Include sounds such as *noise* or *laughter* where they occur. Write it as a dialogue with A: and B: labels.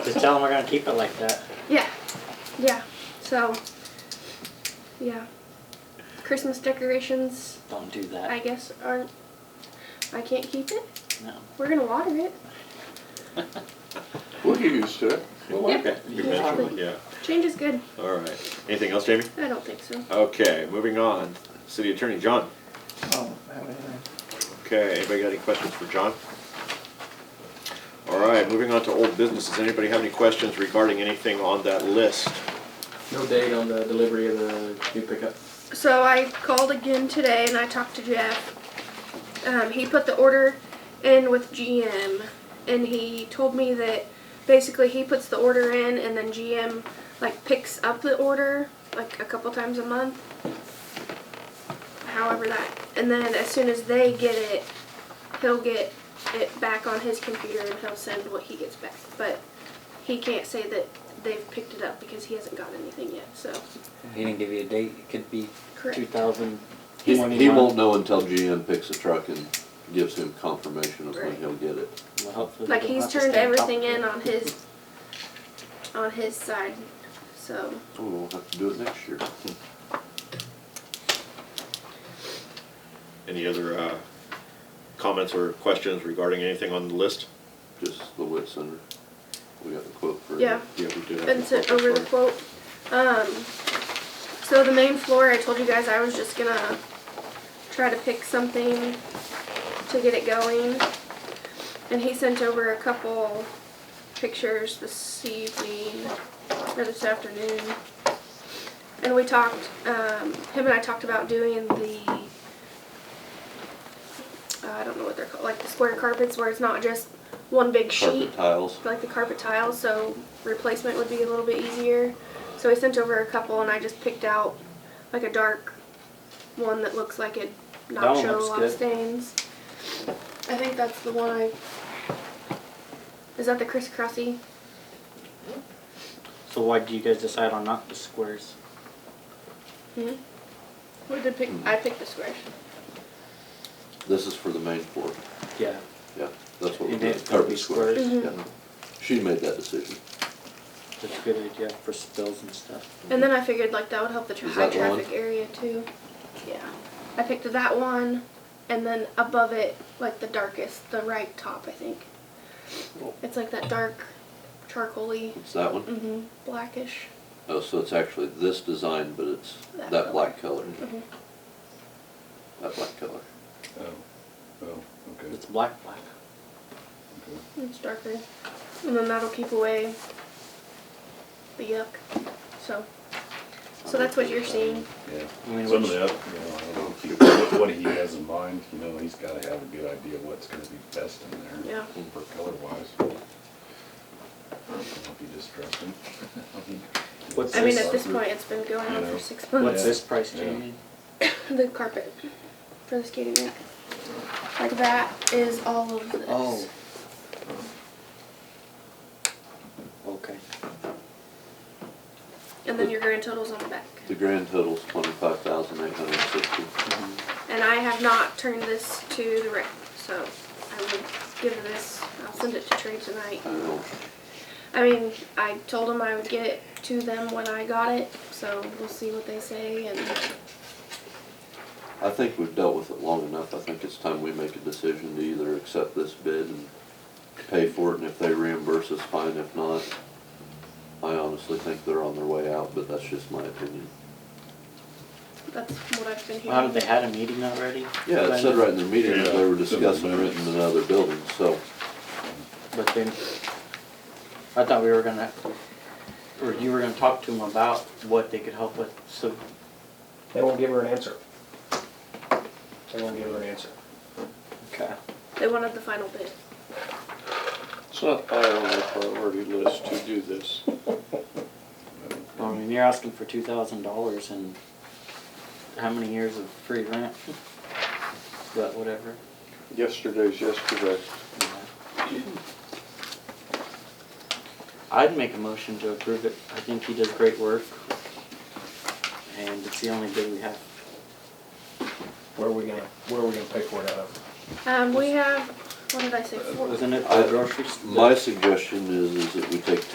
A: Just tell them we're gonna keep it like that.
B: Yeah, yeah. So, yeah. Christmas decorations,
A: Don't do that.
B: I guess, aren't. I can't keep it.
A: No.
B: We're gonna water it,
C: We'll get used to it.
D: We'll like
B: Yeah.
D: it. You mentioned it,
B: Change is good.
D: yeah. All right. Anything else, Jamie?
B: I don't think so.
D: Okay, moving on. City Attorney, John.
E: Oh, I have anything.
D: Okay, anybody got any questions for John? All right, moving on to old business. Does anybody have any questions regarding anything on that list?
F: No date on the delivery of the new pickup.
B: So I called again today and I talked to Jeff. Um, he put the order in with GM and he told me that basically he puts the order in and then GM like picks up the order like a couple times a month. However that and then as soon as they get it, he'll get it back on his computer and he'll send what he gets back. But he can't say that they've picked it up because he hasn't got anything yet, so
A: If he didn't give you a date, it could be
B: correct.
A: two thousand
C: He, he
E: 21.
C: won't know until GM picks a truck and gives him confirmation of when
B: Right.
C: he'll get it.
A: Well, hopefully we
B: Like
A: don't
B: he's
A: have to
B: turned
A: stay on top
B: everything
A: of it.
B: in on his on his side. So
C: Oh, we'll have to do it next year.
D: Any other uh, comments or questions regarding anything on the list?
C: Just the wit center. We got the quote for it.
B: Yeah.
D: Yeah, we did have.
B: and
D: a
B: sent
D: couple
B: over the
D: for-
B: quote. Um so the main floor I told you guys I was just gonna try to pick something to get it going. And he sent over a couple pictures this evening or this afternoon. And we talked, um, him and I talked about doing the, uh, I don't know what they're called, like the square carpets where it's not just one big sheet
C: Carpet tiles.
B: like the carpet tiles, so replacement would be a little bit easier. So I sent over a couple and I just picked out like a dark one that looks like it
A: That
B: not
A: one
B: shown a
A: looks
B: lot of
A: good.
B: stains. I think that's the one I. Is that the crisscrossy?
A: So why do you guys decide on not the squares?
B: We did pick. I picked the square.
C: This is for the main floor.
A: Yeah.
C: Yeah, that's what we
A: You
C: did.
A: made it to be
C: Carpet square.
A: squares.
B: Mhm.
C: Yeah. She made that decision.
B: Mm-hmm.
A: That's a good idea for spills and stuff.
B: And then I figured like that would help the tra-
C: Is
B: high
C: that the one?
B: traffic area too. Yeah. I picked that one and then above it, like the darkest, the right top, I think. It's like that dark charcoaly,
C: It's that one.
B: mm-hmm, blackish.
C: Oh, so it's actually this design, but it's
B: That
C: that
B: color.
C: black color.
B: Mhm.
C: That black color.
G: Oh, oh, okay,
A: It's black, black.
G: okay.
B: It's darker. And then that'll keep away the yuck. So so that's what you're seeing.
G: Yeah,
A: I mean,
G: some of
A: which-
G: the other, you know, I don't know what- what he has in mind, you know, he's gotta have a good idea of what's gonna be best in there.
B: Yeah.
G: For color wise. Don't be *laughs* distressing.
A: What's
B: I mean
A: this-
B: at this point it's been going on
G: You know,
B: for six
A: What's
B: months.
A: this price,
G: Yeah.
A: Jamie?
B: The carpet for the skating rink. Like that is all of this.
A: Oh. Okay.
B: And then your grand total's on the back.
C: The grand total's twenty-five thousand eight hundred and sixty.
A: Mm-hmm.
B: And I have not turned this to the rec, so I would give this, I'll send it to Trey tonight.
C: I know.
B: I mean, I told them I would get it to them when I got it, so we'll see what they say and,
C: I think we've dealt with it long enough. I think it's time we make a decision to either accept this bid and pay for it, and if they reimburse us, fine. If not, I honestly think they're on their way out, but that's just my opinion.
B: that's what I've been
A: Well, have
B: hearing.
A: they had a meeting already?
C: Yeah, it said right in their meeting that they were discussing renting another building, so
A: But then, I thought we were gonna, or you were gonna talk to them about what they could help with, so
F: They won't give her an answer. They won't give her an answer.
A: Okay.
B: They wanted the final bid.
H: It's not high on our priority list to do this.
A: I mean, you're asking for two thousand dollars and how many years of free rent? But whatever.
H: Yesterday's yesterday.
A: yeah. I'd make a motion to approve it. I think he does great work. And it's the only bid we have.
F: Where are we gonna, where are we gonna pay for it out of?
B: Um, we have, what did I say, four?
A: Wasn't it
C: I-
A: the grocery store?
C: my suggestion is, is that we take